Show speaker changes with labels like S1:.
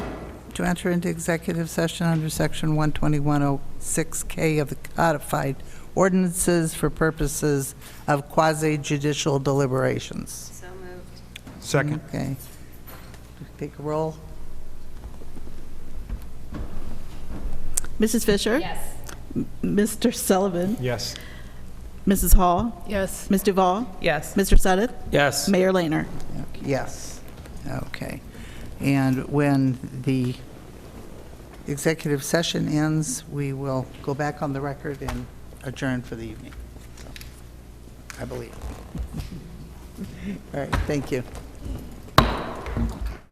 S1: to enter into executive session under Section 12106K of the codified ordinances for purposes of quasi-judicial deliberations.
S2: So moved.
S3: Second.
S1: Okay. Take a roll.
S4: Mrs. Fisher?
S2: Yes.
S4: Mr. Sullivan?
S3: Yes.
S4: Mrs. Hall?
S5: Yes.
S4: Ms. Duval?
S5: Yes.
S4: Mr. Suddeth?
S3: Yes.
S4: Mayor Laner?
S1: Yes, okay. And when the executive session ends, we will go back on the record and adjourn for the evening, So, I believe. All right, thank you.